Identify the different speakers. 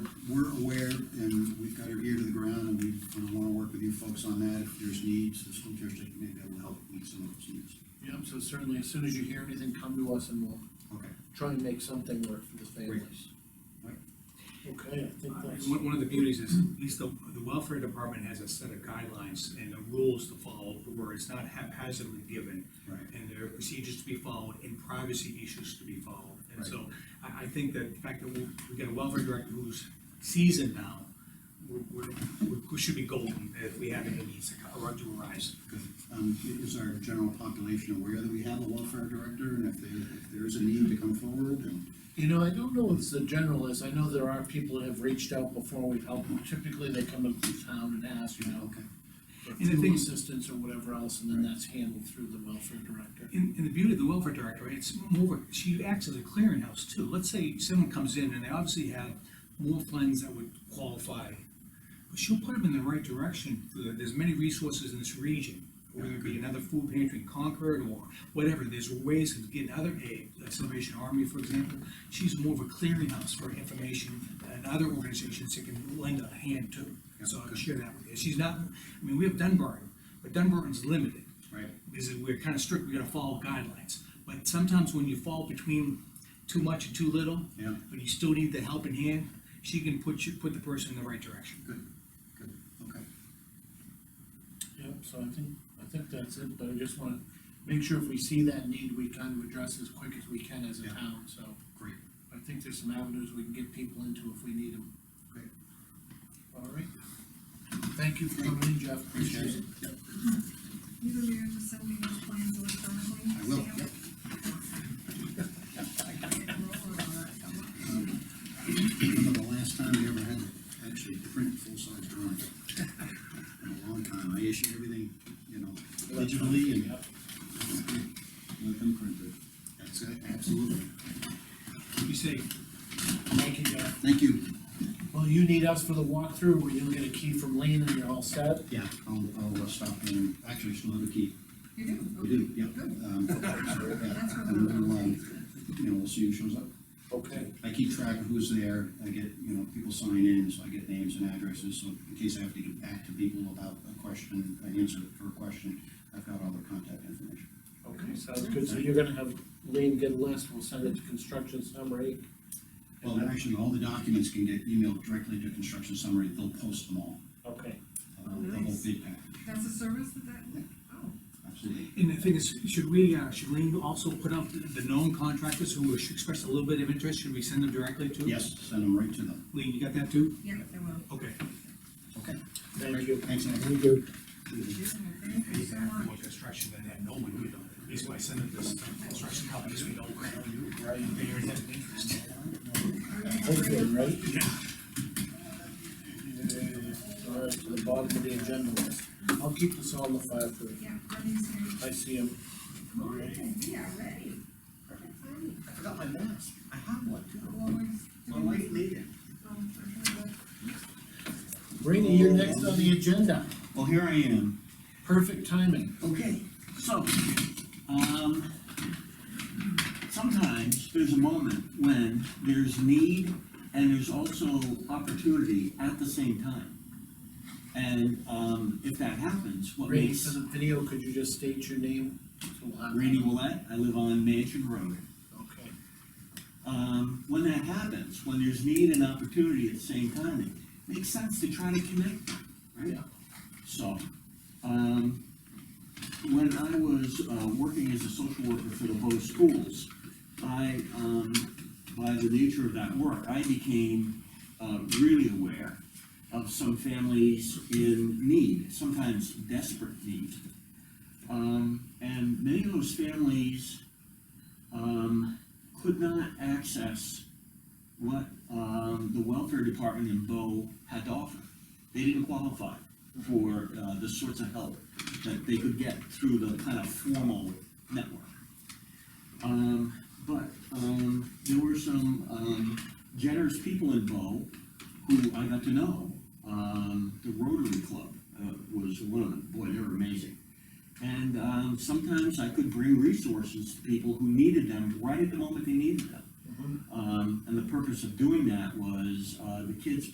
Speaker 1: we're aware, and we've got our ear to the ground, and we want to work with you folks on that. If there's needs, the school district may be able to help meet some of those needs.
Speaker 2: Yeah, so certainly, as soon as you hear anything, come to us and we'll
Speaker 1: Okay.
Speaker 2: try and make something work for the families.
Speaker 1: Right.
Speaker 2: Okay, I think
Speaker 3: Uh,
Speaker 2: that's,
Speaker 3: One, one of the beauties is, at least the, the welfare department has a set of guidelines and the rules to follow, where it's not haphazardly given.
Speaker 1: Right.
Speaker 3: And there are procedures to be followed and privacy issues to be followed. And
Speaker 1: Right.
Speaker 3: so, I, I think that the fact that we, we got a welfare director who's seasoned now, we're, we're, we should be golden if we have any needs to co- or to arise.
Speaker 1: Good. Um, i- is our general population aware that we have a welfare director, and if there, if there is a need to come forward, and,
Speaker 2: you know, I don't know if it's the general is, I know there are people that have reached out before we've helped them, typically they come up to town and ask, you know,
Speaker 1: okay.
Speaker 2: for
Speaker 3: the
Speaker 2: fuel
Speaker 3: thing-
Speaker 2: assistance or whatever else, and then that's handled through the welfare director.
Speaker 3: And, and the beauty of the welfare director, it's more, she acts as a clearinghouse too. Let's say someone comes in and they obviously have more funds that would qualify. But she'll put them in the right direction. There's many resources in this region, whether it be another food pantry in Concord or whatever. There's ways of getting other aid, like Salvation Army, for example. She's more of a clearinghouse for information and other organizations that can lend a hand to. So I'll share that with you. She's not, I mean, we have Dunbar, but Dunbarton's limited
Speaker 1: Right.
Speaker 3: is that we're kind of strict, we gotta follow guidelines. But sometimes when you fall between too much and too little,
Speaker 1: Yeah.
Speaker 3: but you still need the helping hand, she can put you, put the person in the right direction.
Speaker 1: Good, good, okay.
Speaker 2: Yep, so I think, I think that's it, but I just wanna make sure if we see that need, we kind of address as quick as we can as a
Speaker 1: Yeah.
Speaker 2: town, so.
Speaker 1: Great.
Speaker 2: I think there's some avenues we can get people into if we need them.
Speaker 1: Great.
Speaker 2: All right. Thank you for coming in, Jeff, appreciate it.
Speaker 1: Yep.
Speaker 4: You will be able to send me those plans electronically?
Speaker 1: I will,
Speaker 4: Sam?
Speaker 1: yep.
Speaker 4: Roll on that.
Speaker 1: Remember the last time we ever had to actually print full-size drawings? In a long time, I issued everything, you know, digitally and.
Speaker 2: Yep.
Speaker 1: Let them print it. That's it, absolutely.
Speaker 3: You say,
Speaker 2: Thank you, Jeff.
Speaker 1: Thank you.
Speaker 2: Well, you need us for the walkthrough, where you'll get a key from Lean and you're all set.
Speaker 1: Yeah, I'll, I'll uh, stop in, actually, I still have a key.
Speaker 4: You do?
Speaker 1: We do, yep.
Speaker 4: Good.
Speaker 1: Um, so, yeah,
Speaker 4: That's what
Speaker 1: and
Speaker 4: I'm-
Speaker 1: we'll, um, You know, we'll see who shows up.
Speaker 2: Okay.
Speaker 1: I keep track of who's there, I get, you know, people sign in, so I get names and addresses, so in case I have to get back to people about a question, an answer for a question, I've got all their contact information.
Speaker 2: Okay, sounds good, so you're gonna have Lean get a list, we'll send it to construction summary.
Speaker 1: Well, actually, all the documents can get emailed directly to construction summary, they'll post them all,
Speaker 2: Okay,
Speaker 1: uh, the whole
Speaker 4: Nice.
Speaker 1: big package,
Speaker 4: That's a service that that, oh,
Speaker 1: absolutely.
Speaker 3: and the thing is, should we, uh, should Lean also put up the known contractors who expressed a little bit of interest, should we send them directly to?
Speaker 1: Yes, send them right to them.
Speaker 3: Lean, you got that too?
Speaker 4: yeah, I will.
Speaker 3: Okay.
Speaker 1: Okay.
Speaker 2: thank you.
Speaker 1: Thanks, Anthony.
Speaker 2: Thank you.
Speaker 4: Thank you so much.
Speaker 3: construction, then no one would, at least by sending this construction companies, we know.
Speaker 2: Right.
Speaker 3: interest.
Speaker 2: Hopefully, right? Yeah, All right, to the bottom of the agenda list. I'll keep this on the file for you.
Speaker 4: Yeah, Brendan's here.
Speaker 2: I see him.
Speaker 4: Morning, we are ready. Perfect timing.
Speaker 1: I forgot my mask, I have one too.
Speaker 4: Well, we're just doing-
Speaker 1: needed.
Speaker 4: Um, we're trying to-
Speaker 2: Rainey, you're next on the agenda.
Speaker 1: Well, here I am.
Speaker 2: Perfect timing.
Speaker 1: Okay, so, um, sometimes there's a moment when there's need and there's also opportunity at the same time. And, um, if that happens, what
Speaker 2: Rainey,
Speaker 1: makes,
Speaker 2: for the video, could you just state your name? So we'll have-
Speaker 1: Randy Willett, I live on Mansion Road.
Speaker 2: Okay.
Speaker 1: Um, when that happens, when there's need and opportunity at the same time, it makes sense to try to connect, them, right?
Speaker 2: Yeah.
Speaker 1: So, um, when I was, uh, working as a social worker for the Bose schools, I, um, by the nature of that work, I became, uh, really aware of some families in need, sometimes desperate need. Um, and many of those families, um, could not access what, um, the welfare department in Bo had to offer. They didn't qualify for, uh, the sorts of help that they could get through the kind of formal network. Um, but, um, there were some, um, generous people in Bo who I got to know. Um, the Rotary Club, uh, was one of them, boy, they were amazing. And, um, sometimes I could bring resources to people who needed them right at the moment they needed them. Um, and the purpose of doing that was, uh, the kids